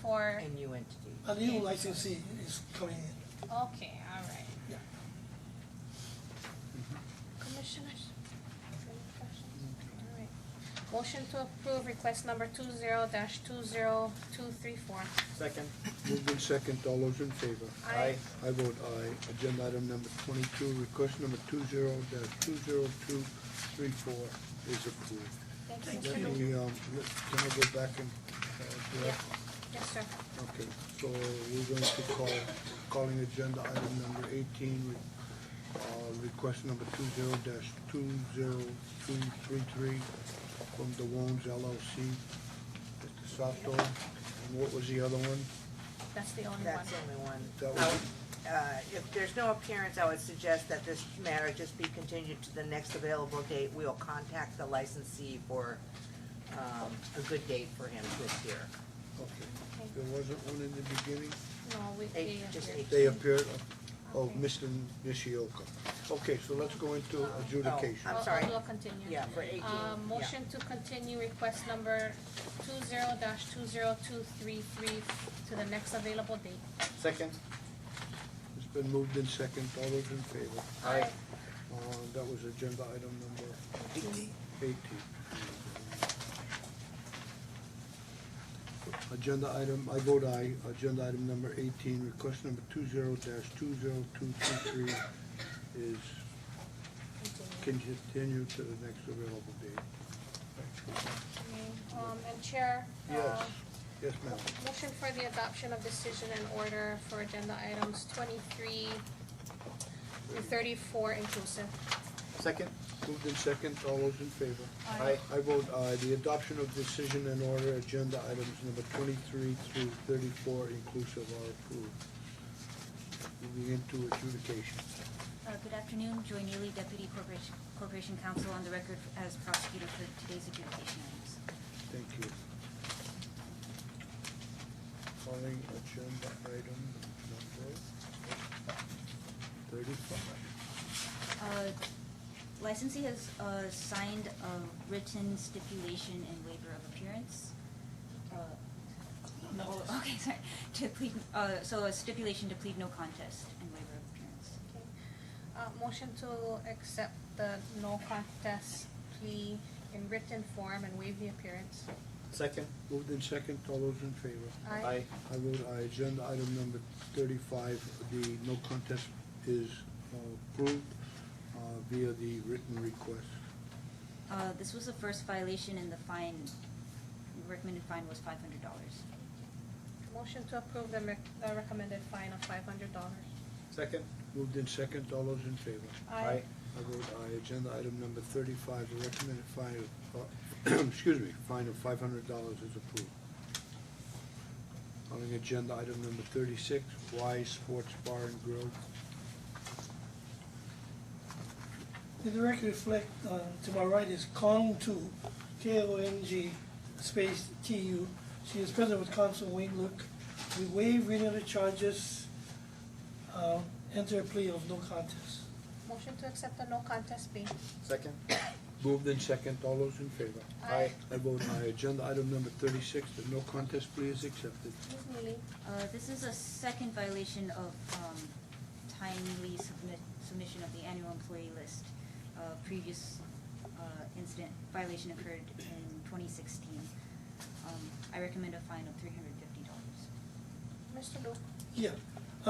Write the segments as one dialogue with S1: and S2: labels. S1: for,
S2: A new entity.
S3: A new licensee is coming in.
S1: okay, all right.
S3: Yeah.
S1: Commissioners? any questions? All right. Motion to approve request number two zero dash two zero two three four.
S4: Second.
S5: Moved in second, all those in favor?
S4: Aye.
S5: I vote aye. Agenda item number twenty-two, request number two zero dash two zero two three four is approved.
S1: Thank you,
S5: Let
S1: Mr. Luke.
S5: me, um, let, can I go back and, uh,
S1: Yeah,
S5: direct?
S1: yes, sir.
S5: Okay, so we're going to call, calling agenda item number eighteen, uh, request number two zero dash two zero two three three from the Wones LLC. Mr. Sato, and what was the other one?
S1: That's the only one.
S2: That's the only one.
S5: That
S2: I
S5: was-
S2: would, uh, If there's no appearance, I would suggest that this matter just be continued to the next available date. We'll contact the licensee for um, a good date for him to appear.
S5: Okay, there wasn't one in the beginning?
S1: No, we,
S2: Eight,
S1: they
S2: just
S1: appeared.
S2: eight.
S5: They appeared, oh, Mr. Nishioka. Okay, so let's go into adjudication.
S2: I'm
S1: I'll-
S2: sorry.
S1: I'll do a continue.
S2: Yeah, for eighteen,
S1: Uh,
S2: yeah.
S1: motion to continue request number two zero dash two zero two three three to the next available date.
S4: Second.
S5: It's been moved in second, all those in favor?
S4: Aye.
S5: Uh, that was agenda item number
S3: Eighteen.
S5: eighteen. Agenda item, I vote aye, agenda item number eighteen, request number two zero dash two zero two two three is continued to the next available date.
S1: Okay, Um, and Chair, uh,
S5: Yes, yes, ma'am.
S1: motion for the adoption of decision and order for agenda items twenty-three through thirty-four inclusive.
S4: Second.
S5: Moved in second, all those in favor?
S4: Aye.
S5: I vote aye. The adoption of decision and order agenda items number twenty-three through thirty-four inclusive are approved. Moving into adjudication.
S6: Uh, Good afternoon, Joy Neely, Deputy Corporation Corporation Counsel, on the record as prosecutor for today's adjudication items.
S5: Thank you. Calling agenda item number thirty-five.
S6: Uh, Licensee has uh, signed a written stipulation and waiver of appearance. Uh, No, okay, sorry, to plead, uh, so a stipulation to plead no contest and waiver of appearance.
S1: Okay. Uh, motion to accept the no contest plea in written form and waive the appearance.
S4: Second.
S5: Moved in second, all those in favor?
S1: Aye.
S5: I vote aye. Agenda item number thirty-five, the no contest is uh, approved uh, via the written request.
S6: Uh, This was the first violation and the fine, recommended fine was five hundred dollars.
S1: Motion to approve the rec- the recommended fine of five hundred dollars.
S4: Second.
S5: Moved in second, all those in favor?
S4: Aye.
S5: I vote aye. Agenda item number thirty-five, the recommended fine of, uh, excuse me, fine of five hundred dollars is approved. Calling agenda item number thirty-six, Y Sports Bar and Grill.
S3: Did The record reflect, uh, to my right is Kong Tu, K-O-N-G, space T-U. She is present with counsel Wayne Luke. We waive reading of the charges, uh, enter a plea of no contest.
S1: Motion to accept the no contest plea.
S4: Second.
S5: Moved in second, all those in favor?
S4: Aye.
S5: I vote aye. Agenda item number thirty-six, the no contest plea is accepted.
S1: Ms. Neely,
S6: Uh, This is a second violation of um, timely submit, submission of the annual employee list. Uh, Previous uh, incident violation occurred in twenty sixteen. Um, I recommend a fine of three hundred fifty dollars.
S1: Mr. Luke,
S3: Yeah,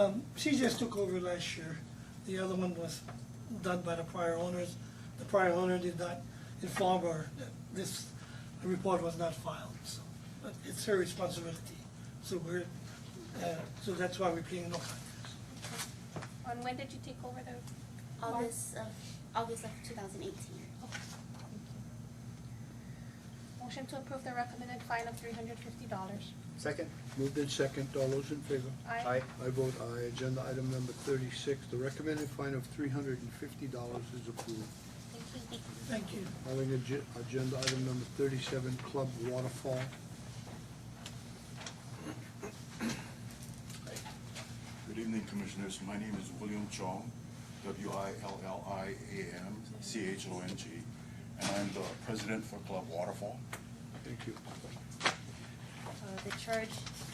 S3: um, she just took over last year. The other one was done by the prior owners. The prior owner did not inform her that this report was not filed, so uh, it's her responsibility. So we're, uh, so that's why we're pleading no contest.
S1: on when did you take over the?
S7: August of August of 2018.
S1: Motion to approve the recommended fine of three hundred fifty dollars.
S4: Second.
S5: Moved in second, all those in favor?
S1: Aye.
S5: I vote aye. Agenda item number thirty-six, the recommended fine of three hundred and fifty dollars is approved.
S1: Thank you.
S3: Thank you.
S5: Calling ag- agenda item number thirty-seven, Club Waterfall.
S8: Good evening, Commissioners. My name is William Chong, W-I-L-L-I-A-M-C-H-O-N-G, and I'm the president for Club Waterfall.
S5: Thank you.
S6: Uh, The charge